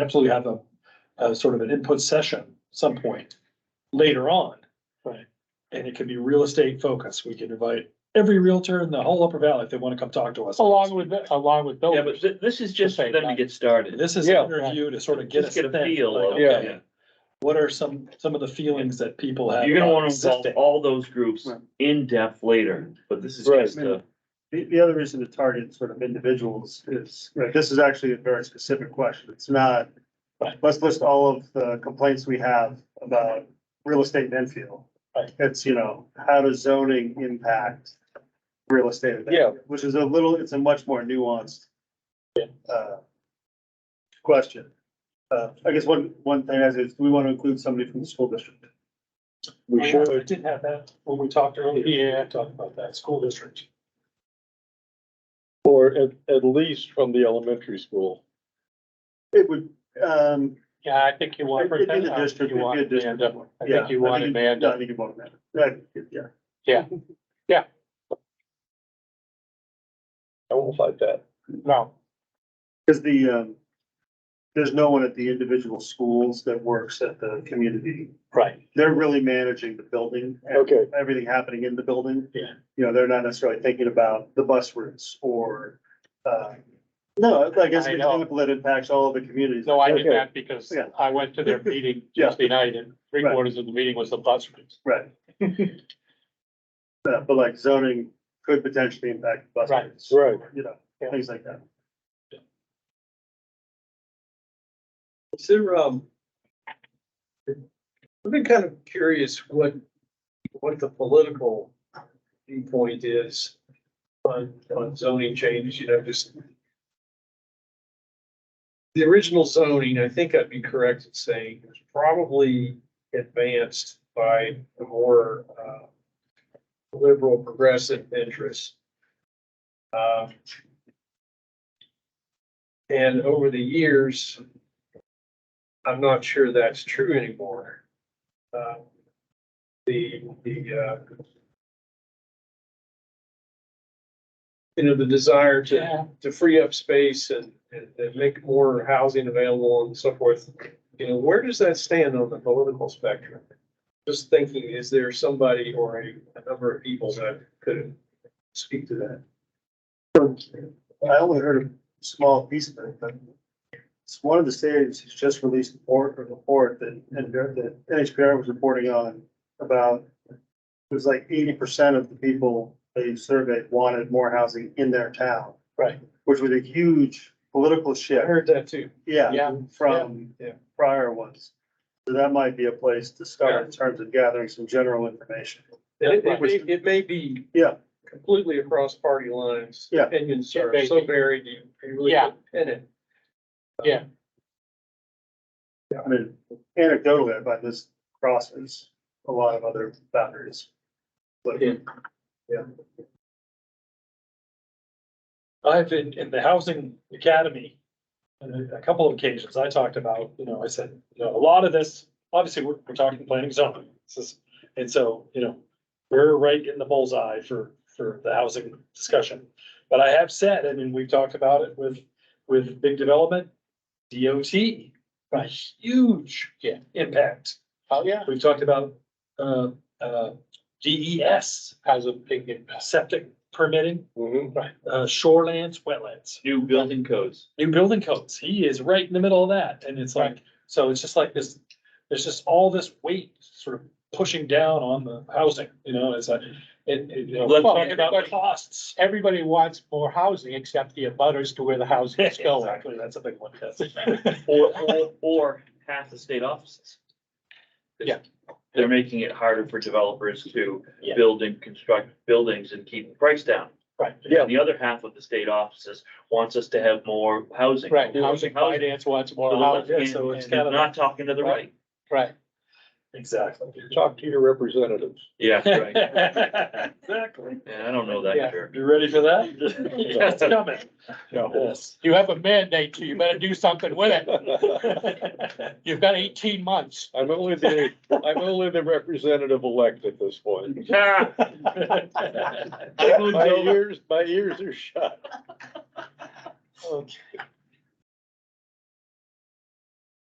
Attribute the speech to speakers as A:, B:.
A: absolutely have a, a sort of an input session some point later on.
B: Right.
A: And it can be real estate focused. We can invite every realtor in the whole upper valley if they want to come talk to us.
B: Along with, the- along with
C: Yeah, but
B: buildings.
C: thi- this is just for them to get started.
A: This is
B: Yeah,
A: an
B: right.
A: interview to sort of get
C: Just
A: us.
C: get a feel of,
B: Yeah.
C: yeah.
A: What are some, some of the feelings that people
B: uh,
A: have?
C: You're gonna
A: about
C: wanna involve
A: existing?
C: all those groups
D: Right.
C: in depth later, but this is
B: Right.
C: just a,
D: The, the other reason to target sort of individuals is, right, this is actually a very specific question. It's not,
A: Right.
D: let's list all of the complaints we have about real estate in Enfield.
A: Right.
D: It's, you know, how does zoning impact real estate? in Enfield, Which is a little, it's a much more nuanced uh, question. Uh, I guess one, one thing is, is we want to include somebody from the school district.
A: We should. I did have that when we talked earlier. Yeah. Talked about that, school district.
B: Or uh, at, at least from the elementary school.
D: It would, um,
B: Yeah, I think you want.
D: It'd be the district, it'd be a district. one.
B: I
D: Yeah,
B: think you want
D: think-
B: Amanda.
D: I think you want Amanda. That, yeah.
B: I won't fight that. uh, No,
D: Cause the, um, there's no one at the individual schools that works at the community.
A: Right.
D: They're really managing the building. and
B: Okay.
D: Everything happening in the building.
A: Yeah.
D: You know, they're not necessarily thinking about the bus routes or, uh, no, I guess
B: I
D: an
B: know.
D: example that impacts all of the communities.
B: no, I did
D: Okay.
B: that because
D: Yeah.
B: I went to their meeting
D: Yeah.
B: Tuesday night and three
D: Right.
B: quarters of the meeting was the bus routes.
D: Right. Uh, But like zoning could potentially impact bus
B: Right,
D: routes.
B: right.
D: You know,
B: Yeah.
D: things like that.
E: Is there, um, I've been kind of curious what, what the political viewpoint is on, on zoning change, you know, just the original zoning, I think I'd be correct in saying, was probably advanced by the more, uh, liberal progressive interests. Uh, And over the years, I'm not sure that's true anymore. Uh, The, the, uh, you know, the desire to, to free up space and, and and make more housing available and so forth. You know, where does that stand on the political spectrum? Just thinking, is there somebody or a, a number of people that could speak to that?
D: I only heard a small piece of it, but it's one of the states has just released a report, a report that, and that NHPR was reporting on about, it was like eighty percent of the people they surveyed wanted more housing in their town.
E: Right.
D: Which was a huge political
E: I
D: shift,
E: heard that too.
D: yeah,
B: Yeah,
D: from
E: yeah.
D: prior ones. So that might be a place to start in terms of gathering some general information.
E: And It, it may, it may be.
D: Yeah.
E: Completely across party lines.
D: Yeah.
E: Opinions
B: It
E: are
B: may
E: so
B: be.
E: varied, you you really
B: Yeah.
E: can't pin it.
D: I mean, anecdotally, I find this crosses a lot of other boundaries. But-
E: Yeah.
A: I've been in the housing academy. On a- a couple of occasions, I talked about, you know, I said, you know, a lot of this, obviously, we're, we're talking planning zoning. This is- And so, you know, we're right in the bullseye for, for the housing discussion. But I have said, I mean, we've talked about it with, with big development, DOT, a huge
B: Yeah.
A: impact.
B: Oh, yeah,
A: We've talked about, uh, uh, DES,
B: has a big impact.
A: septic permitting,
B: Right.
A: uh, shorelands, wetlands
C: new building codes.
A: new building codes. He is right in the middle of that. And it's like, so it's just like this, there's just all this weight sort of pushing down on the housing, you know, it's like, it, it, you know,
C: Let's
A: talk
B: talk
A: about
B: about-
A: the costs.
B: Everybody wants more housing except the abutters to where the housing is going.
A: Exactly, that's a big one, yes.
C: Or, or, or half the state offices.
B: Yeah.
C: They're making it harder for developers to
A: Yeah.
C: build and construct buildings and keep the price down.
A: Right.
B: Yeah.
C: And The other half of the state offices wants us to have more housing.
B: Right, housing finance wants more
C: So
B: housing, uh,
A: yeah,
C: it's-
A: so it's
C: and
A: kind
C: they're
A: of-
C: Not talking to the right.
B: right.
A: Exactly.
B: Talk to your representatives.
C: Yeah, right.
A: Exactly.
C: Yeah, I don't know that
B: Yeah.
C: sure.
A: You ready for that? It's coming, yes.
B: You have a mandate, so you better do something with it. You've got eighteen months.
F: I'm only the, I'm only the representative elect at this point.
C: Ah, I moved
F: My
C: over.
F: ears, my ears are shut.